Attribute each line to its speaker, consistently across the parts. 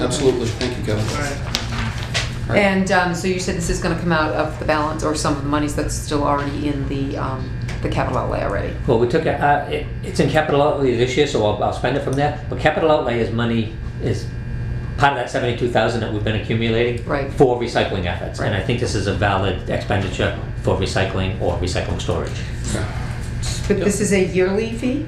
Speaker 1: Absolutely. Thank you, Kevin. All right.
Speaker 2: And um, so you said this is going to come out of the balance or some of the monies that's still already in the, um, the capital outlay already?
Speaker 3: Well, we took, a- uh, it- it's in capital outlay this year, so I'll, I'll spend it from there. But capital outlay is money, is part of that seventy-two thousand that we've been accumulating.
Speaker 2: Right.
Speaker 3: For recycling efforts, and I
Speaker 2: Right.
Speaker 3: think this is a valid expenditure for recycling or recycling storage.
Speaker 1: Okay.
Speaker 2: But this is a yearly fee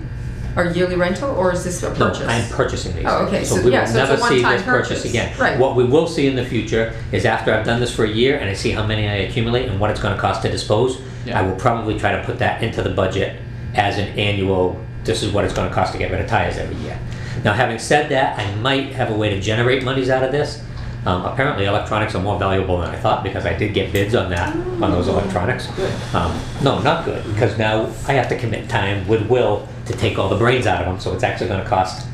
Speaker 2: or yearly rental or is this a
Speaker 3: No,
Speaker 2: purchase?
Speaker 3: I'm purchasing these.
Speaker 2: Oh, okay, so-
Speaker 3: we
Speaker 2: yeah,
Speaker 3: will
Speaker 2: so it's a
Speaker 3: never see
Speaker 2: one-time
Speaker 3: this purchase
Speaker 2: purchase.
Speaker 3: again.
Speaker 2: Right.
Speaker 3: What we will see in the future is after I've done this for a year and I see how many I accumulate and what it's gonna cost to dispose,
Speaker 4: Yeah.
Speaker 3: I will probably try to put that into the budget as an annual, this is what it's gonna cost to get rid of tires every year. Now, having said that, I might have a way to generate monies out of this. Um, apparently electronics are more valuable than I thought because I did get bids on that, on those electronics. Um, no, not good, because now I have to commit time with Will to take all the brains out of them, so it's actually gonna cost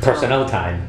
Speaker 3: personnel time.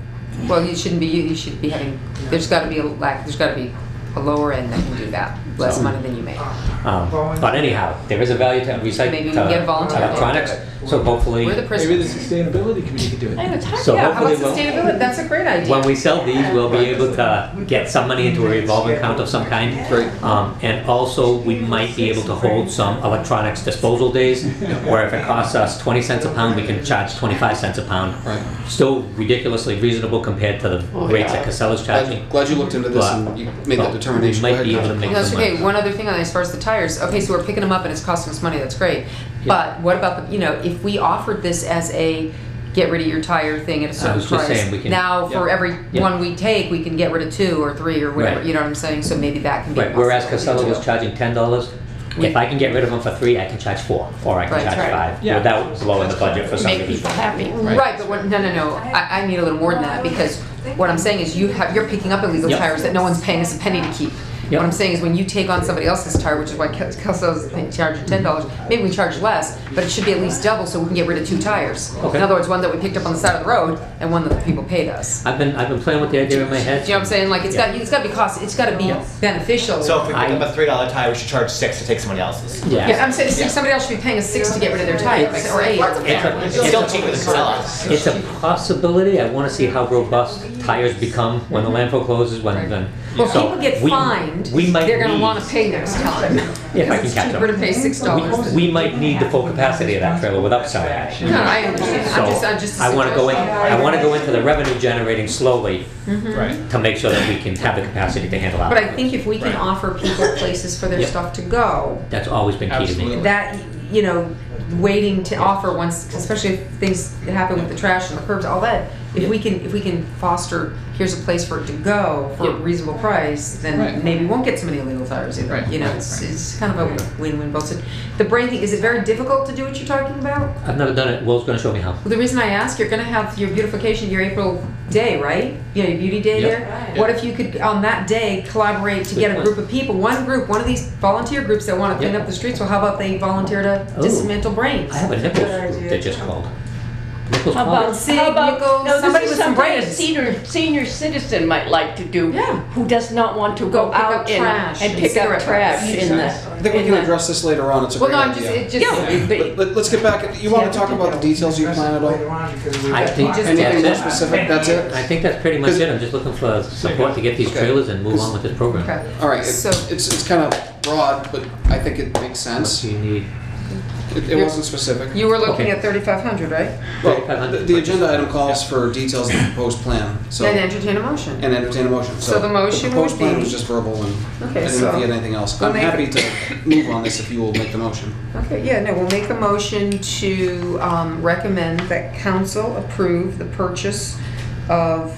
Speaker 2: Well, you shouldn't be, you should be having, there's got to be a lack, there's got to be a lower end that can do that, less
Speaker 3: So-
Speaker 2: money than you make.
Speaker 3: Um, but anyhow, there is a value to recycling
Speaker 2: Maybe we can get a volunteer to do
Speaker 3: electronics,
Speaker 2: it.
Speaker 3: so hopefully
Speaker 2: We're the
Speaker 4: Maybe the
Speaker 2: prison.
Speaker 4: sustainability committee could do
Speaker 2: I
Speaker 4: it.
Speaker 2: know, Ty-
Speaker 3: So
Speaker 2: yeah, how about
Speaker 3: hopefully we'll-
Speaker 2: sustainability? That's a great idea.
Speaker 3: when we sell these, we'll be able to get some money into a revolving account of some kind.
Speaker 1: Great.
Speaker 3: Um, and also, we might be able to hold some electronics disposal days, where if it costs us 20 cents a pound, we can charge 25 cents a pound.
Speaker 1: Right.
Speaker 3: Still ridiculously reasonable compared to the
Speaker 5: Oh,
Speaker 3: rates
Speaker 5: yeah.
Speaker 3: that Casella's charging.
Speaker 1: Glad, glad you looked into this and you made that
Speaker 3: But
Speaker 1: determination.
Speaker 3: We
Speaker 1: Go
Speaker 3: might
Speaker 1: ahead,
Speaker 3: be able to
Speaker 1: Kevin.
Speaker 3: make
Speaker 2: That's
Speaker 3: some money.
Speaker 2: okay. One other thing on as far as the tires. Okay, so we're picking them up and it's costing us money. That's great. But what about the you know if we offered this as a get rid of your tire thing at a certain
Speaker 3: was just
Speaker 2: price?
Speaker 3: saying we can-
Speaker 2: now for
Speaker 4: Yeah.
Speaker 2: every
Speaker 3: Yeah.
Speaker 2: one we take, we can get rid of two or three or whatever.
Speaker 3: Right.
Speaker 2: You know what I'm saying? So maybe that can be. a
Speaker 3: Right, whereas
Speaker 2: possibility
Speaker 3: Casella was
Speaker 2: too.
Speaker 3: charging ten dollars,
Speaker 2: We-
Speaker 3: if I can get rid of them for three, I can charge four, or I
Speaker 2: Right.
Speaker 3: can charge
Speaker 5: Right.
Speaker 3: five,
Speaker 4: Yeah.
Speaker 3: without blowing the budget for some
Speaker 5: Make people happy.
Speaker 2: Right. but what, no, no, no. I, I need a little more than that because what I'm saying is you have you're picking up illegal
Speaker 3: Yep.
Speaker 2: tires that no one's paying us a penny to keep.
Speaker 3: Yep.
Speaker 2: What I'm saying is when you take on somebody else's tire, which is why Kel- Kelso's thing charging ten dollars, maybe we charge less, but it should be at least double so we can get rid of two tires.
Speaker 3: Okay.
Speaker 2: In other words, one that we picked up on the side of the road and one that the people paid us.
Speaker 3: I've been, I've been playing with the idea in my head.
Speaker 2: Do you know what I'm saying? Like it's got it's got to be cost. It's got to be beneficial.
Speaker 6: So if we pick
Speaker 3: I-
Speaker 6: up a three dollar tie, we should charge six to take somebody else's.
Speaker 2: yeah,
Speaker 3: Yeah,
Speaker 2: I'm saying see, somebody else should be paying us six to get rid of their tires or eight.
Speaker 3: it's a,
Speaker 6: It's still cheaper than Casella.
Speaker 3: It's a possibility. I want to see how robust tires become when the landfill closes, when, when.
Speaker 2: Mm-hmm. Well,
Speaker 3: so
Speaker 2: people get
Speaker 3: we-
Speaker 2: fined.
Speaker 3: we might
Speaker 2: They're gonna
Speaker 3: need-
Speaker 2: wanna pay next time.
Speaker 3: If I can catch
Speaker 2: It's
Speaker 3: up.
Speaker 2: cheaper to pay six dollars.
Speaker 3: We, we might need the full capacity of that trailer without selling it.
Speaker 2: No, I understand. I'm just, I'm just.
Speaker 3: So I want to go in, I want to go into the revenue generating slowly
Speaker 4: Right.
Speaker 3: to make sure that we can have the capacity to handle
Speaker 2: Mm-hmm. But I
Speaker 3: out.
Speaker 2: think if we can
Speaker 4: Right.
Speaker 2: offer people places for their
Speaker 3: Yeah.
Speaker 2: stuff to go,
Speaker 3: That's always been key to me.
Speaker 4: Absolutely.
Speaker 2: that, you know, waiting to offer once, especially if things happen with the trash and the curbs, all that. If
Speaker 3: Yeah.
Speaker 2: we can, if we can foster, here's a place for it to go for a
Speaker 3: Yeah.
Speaker 2: reasonable price, then
Speaker 4: Right.
Speaker 2: maybe we won't get so many illegal tires either.
Speaker 4: Right.
Speaker 2: You know,
Speaker 4: Right.
Speaker 2: it's, it's kind of a win-win both. sides. The brain thing, is it very difficult to do what you're talking about?
Speaker 3: I've never done it. Will's going to show me how.
Speaker 2: Well, the reason I ask, you're going to have your beautification, your April day, right? You know, your beauty day
Speaker 3: Yep.
Speaker 2: there. What if you could, on that day, collaborate to get a
Speaker 3: point.
Speaker 2: group of people, one group, one of these volunteer groups that want to clean
Speaker 3: Yep.
Speaker 2: up the streets? Well, how about they volunteer to
Speaker 3: Ooh.
Speaker 2: dismantle brains?
Speaker 3: I have a Nichols group that just called. Nichols
Speaker 5: How
Speaker 3: called.
Speaker 5: about,
Speaker 2: Sig,
Speaker 5: how about,
Speaker 2: Nichols,
Speaker 5: no,
Speaker 2: somebody
Speaker 5: this is
Speaker 2: with some
Speaker 5: something a
Speaker 2: brains.
Speaker 5: senior, senior citizen might like to do,
Speaker 2: Yeah.
Speaker 5: who does not want to
Speaker 2: Go
Speaker 5: go
Speaker 2: pick up
Speaker 5: out and,
Speaker 2: trash
Speaker 5: and
Speaker 2: and
Speaker 5: pick up
Speaker 2: cigarette
Speaker 5: trash
Speaker 2: butts.
Speaker 5: in the.
Speaker 1: I think we
Speaker 5: in
Speaker 1: can
Speaker 5: the-
Speaker 1: address this later on. It's a
Speaker 2: well,
Speaker 1: great
Speaker 2: no, I'm just,
Speaker 1: idea.
Speaker 2: it just,
Speaker 5: Yeah,
Speaker 1: But
Speaker 5: but,
Speaker 1: let- Let's get back, you want to talk about the details of your plan at all?
Speaker 3: I think that's
Speaker 1: Anything more
Speaker 3: it.
Speaker 1: specific? That's it?
Speaker 3: I think that's pretty much it. I'm just looking for support to get these
Speaker 1: Okay.
Speaker 3: trailers and move on with this program.
Speaker 2: okay.
Speaker 1: All right, it's,
Speaker 2: So,
Speaker 1: it's, it's kind of broad, but I think it makes
Speaker 3: What
Speaker 1: sense.
Speaker 3: do you need?
Speaker 1: It, it wasn't specific.
Speaker 2: you were looking
Speaker 3: Okay.
Speaker 2: at 3,500, right?
Speaker 1: Well, the, the agenda item calls for details of the proposed plan, so,
Speaker 2: Then entertain a motion.
Speaker 1: and entertain a motion, so.
Speaker 2: So the motion
Speaker 1: proposed
Speaker 2: would
Speaker 1: plan
Speaker 2: be-
Speaker 1: was just verbal and, I
Speaker 2: Okay,
Speaker 1: didn't know if
Speaker 2: so-
Speaker 1: you had anything else,
Speaker 2: I'll
Speaker 1: but I'm
Speaker 2: make
Speaker 1: happy
Speaker 2: it-
Speaker 1: to move on this if you will make the motion.
Speaker 2: Okay, yeah, no, we'll make a motion to um, recommend that council approve the purchase of,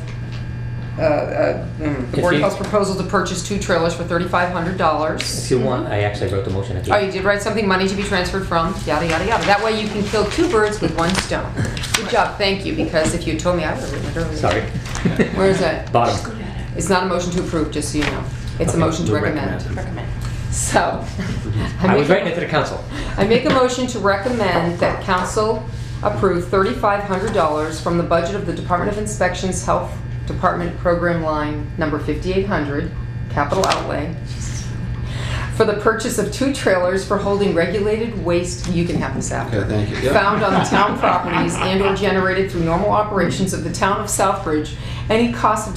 Speaker 2: uh, uh, mm, the
Speaker 3: If
Speaker 2: Board of
Speaker 3: you-
Speaker 2: Health's proposal to purchase two trailers for $3,500.
Speaker 3: If you want, I actually wrote the motion at the
Speaker 2: Oh,
Speaker 3: end.
Speaker 2: you did write something, money to be transferred from, yada, yada, yada. That way you can kill two birds with one stone. Good job, thank you, because if you told me, I would have written it earlier.
Speaker 3: Sorry.
Speaker 2: Where is it?
Speaker 3: Bottom.
Speaker 2: It's not a motion to approve, just so you know. It's a
Speaker 3: Okay,
Speaker 2: motion to
Speaker 3: we
Speaker 2: recommend.
Speaker 5: recommend.
Speaker 2: So.
Speaker 3: I
Speaker 2: make
Speaker 3: was
Speaker 2: a-
Speaker 3: writing it to the council.
Speaker 2: I make a motion to recommend that council approve thirty-five hundred dollars from the budget of the Department of Inspection's Health Department Program Line Number fifty-eight hundred, capital outlay, for the purchase of two trailers for holding regulated waste, you can have this after,
Speaker 1: Okay, thank you. Yep.
Speaker 2: found on the town properties and/or generated through normal operations of the town of Southbridge, any cost of